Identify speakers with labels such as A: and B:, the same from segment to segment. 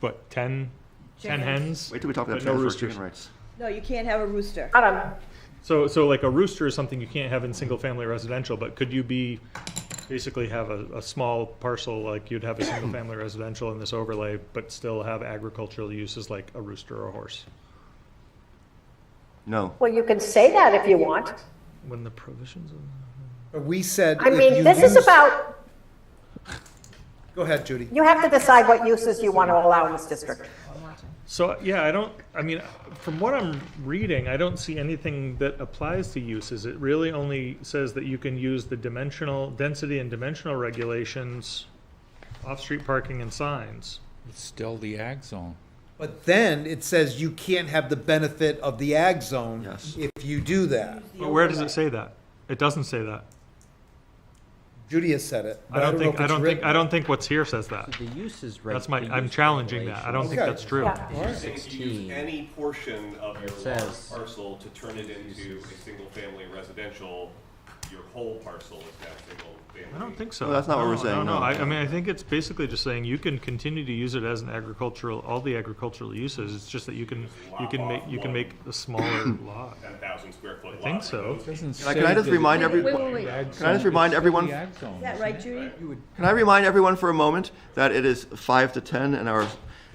A: what, 10, 10 hens?
B: Wait till we talk about
A: But no
B: transfer of
A: roosters.
B: chicken rights.
C: No, you can't have a rooster.
D: I don't know.
A: So, so like a rooster is something you can't have in single-family residential, but could you be, basically have a, a small parcel, like you'd have a single-family residential in this overlay, but still have agricultural uses like a rooster or a horse?
B: No,
D: Well, you can say that if you want.
A: When the provisions of.
E: But we said.
D: I
E: if you
D: mean, this is
E: use-
D: about,
E: Go ahead, Judy.
D: you have to decide what uses you want to allow in this district.
A: So, yeah, I don't, I mean, from what I'm reading, I don't see anything that applies to uses. It really only says that you can use the dimensional, density and dimensional regulations, off-street parking and signs.
F: It's still the ag zone.
E: But then it says you can't have the benefit of the ag zone.
B: Yes.
E: If you do that.
A: But where does it say that? It doesn't say that.
E: Judy has said it.
A: I
E: but
A: don't
E: know
A: think,
E: if
A: I
E: it's
A: don't think,
E: written.
A: I don't think what's here says that.
G: The use is right.
A: That's my, I'm challenging that. I don't think
E: Okay.
A: that's true.
D: Yeah.
H: Saying to use any portion of your large
G: Says-
H: parcel to turn it into a single-family residential, your whole parcel is now single-family.
A: I don't think so.
B: No, that's not what we're
A: No,
B: saying,
A: No, no,
B: no.
A: I, I mean, I think it's basically just saying you can continue to use it as an agricultural, all the agricultural uses. It's just that you can, you can make, you can make a smaller lot.
H: 10,000 square foot lot.
A: I think
H: right?
A: so.
F: Doesn't
B: Can I-
F: say.
B: can I just
F: that
B: remind
F: it's
B: every-
F: the
B: Wait, wait,
F: ag
B: wait.
F: zone.
B: Can I just
F: It's
B: remind
F: still
B: everyone-
F: the ag zone,
C: Is that
F: isn't
C: right,
F: it?
C: Judy?
B: can I remind everyone for a moment that it is five to ten and our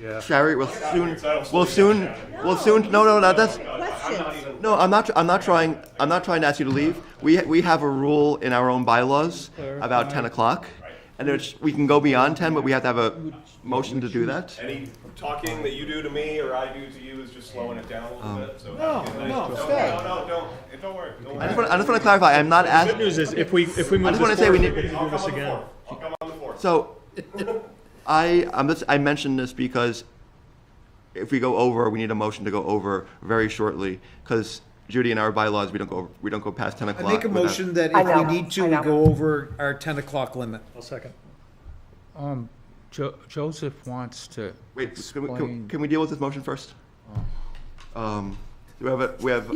A: Yeah.
B: chariot will soon, will soon, will soon, no, no, no, that's,
C: Questions?
B: no, I'm not, I'm not trying, I'm not trying to ask you to leave. We, we have a rule in our own bylaws about ten o'clock. And it's, we can go beyond ten, but we have to have a motion to do that.
H: Any talking that you do to me or I do to you is just slowing it down a little bit, so. have a good night.
E: no,
H: Don't-
E: stay.
H: No, no, don't, eh, don't worry, don't
B: I just
H: worry.
B: want, I just want to clarify, I'm not
A: Good
B: asking,
A: news is, if we, if we move this
B: just wanna say
A: forward,
B: we
A: we
B: need-
A: can do
H: I'll
A: this
H: come on the
A: again.
H: fourth. I'll come on the fourth.
B: so, I, I'm just, I mentioned this because if we go over, we need a motion to go over very shortly, because Judy and our bylaws, we don't go, over- we don't go past ten
E: I
B: o'clock.
E: make a
B: without-
E: motion that
D: I
E: if we
D: know,
E: need to,
D: I
E: we
D: know.
E: go over our ten o'clock limit.
A: I'll second.
F: Um, Jo- Joseph wants to
B: Wait, can we, can-
F: explain.
B: can we deal with this motion first? Um, do we have, a- we have,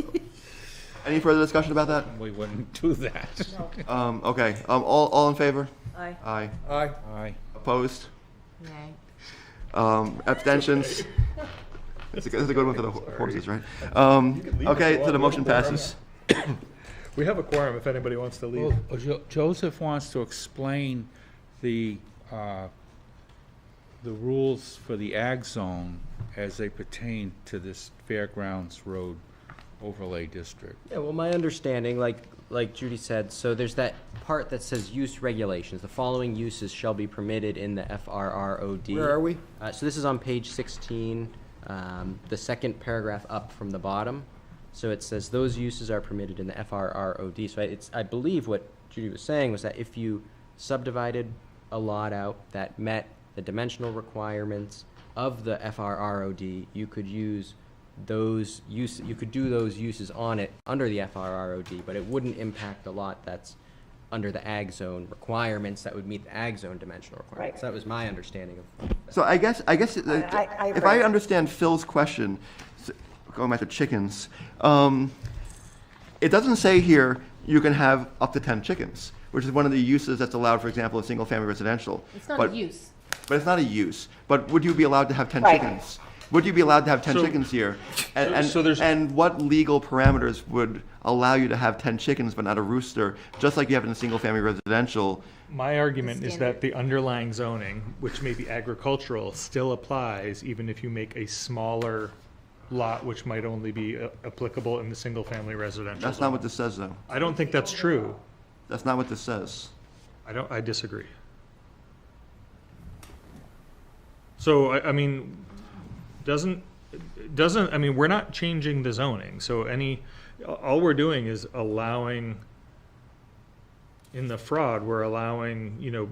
B: any further discussion about that?
F: We wouldn't do that.
B: Um, okay, um, all, all in favor?
C: Aye.
B: Aye.
E: Aye.
F: Aye.
B: Opposed? Um, abstentions? That's a, good- that's a good one for the ho- horses, right? Um,
A: leave us
B: okay, so the
A: alone.
B: motion passes.
A: We have a quorum if anybody wants to leave.
F: Well, uh, Jo- Joseph wants to explain the, uh, the rules for the ag zone as they pertain to this Fairgrounds Road overlay district.
G: Yeah, well, my understanding, like, like Judy said, so there's that part that says use regulations. The following uses shall be permitted in the FRROD.
E: Where are we?
G: Uh, so this is on page sixteen, um, the second paragraph up from the bottom. So it says those uses are permitted in the FRROD. So I- it's, I believe what Judy was saying was that if you subdivided a lot out that met the dimensional requirements of the FRROD, you could use those use, you could do those uses on it under the FRROD, but it wouldn't impact the lot that's under the ag zone requiremements that would meet the ag zone dimensional requirements.
D: Right.
G: That was my understanding of
B: So I guess, I guess, uh,
D: I- I
B: if I
D: agree.
B: understand Phil's question, s- going back to chickens, um, it doesn't say here you can have up to 10 chickens, which is one of the uses that's allowed, for example, in single-family residential.
I: It's not
B: But-
I: a use.
B: But it's not a use. But would you be allowed to have 10
D: Right.
B: chickens? Would you be allowed to have 10
A: So-
B: chickens here? And, and,
A: so there's-
B: and what legal parameters would allow you to have 10 chickens but not a rooster, just like you have in a single-family residential?
A: My argument is that
I: Standard.
A: the underlying zoning, which may be agricultural, still applies even if you make a smaller lot, which might only be uh, applicable in the single-family residential.
B: That's not
A: zone.
B: what this says, though.
A: I don't think that's true.
B: That's not what this says.
A: I don't, I disagree. So, I, I mean, doesn't, doesn't, I mean, we're not changing the zoning, so any, all we're doing is allowing, in the fraud, we're allowing, you know,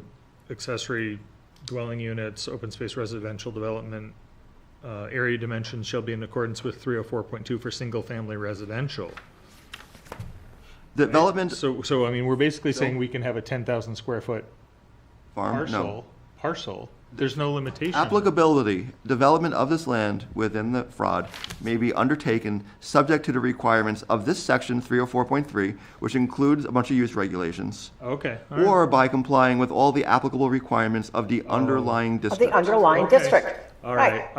A: accessory dwelling units, open space residential development, uh, area dimensions shall be in accordance with three oh four point two for single-family residential.
B: Development
A: So, so, I mean, we're basically saying we can have a ten thousand square foot
B: farm, no.
A: parcel, parcel, there's no limitation.
B: Applicability, development of this land within the fraud may be undertaken subject to the requirements of this section 304.3, which includes a bunch of use regulations.
A: Okay. all right.
B: or by complying with all the applicable requirements of the underlying
D: Of
B: district.
D: the underlying district.
A: Okay. All
D: Right.
A: right,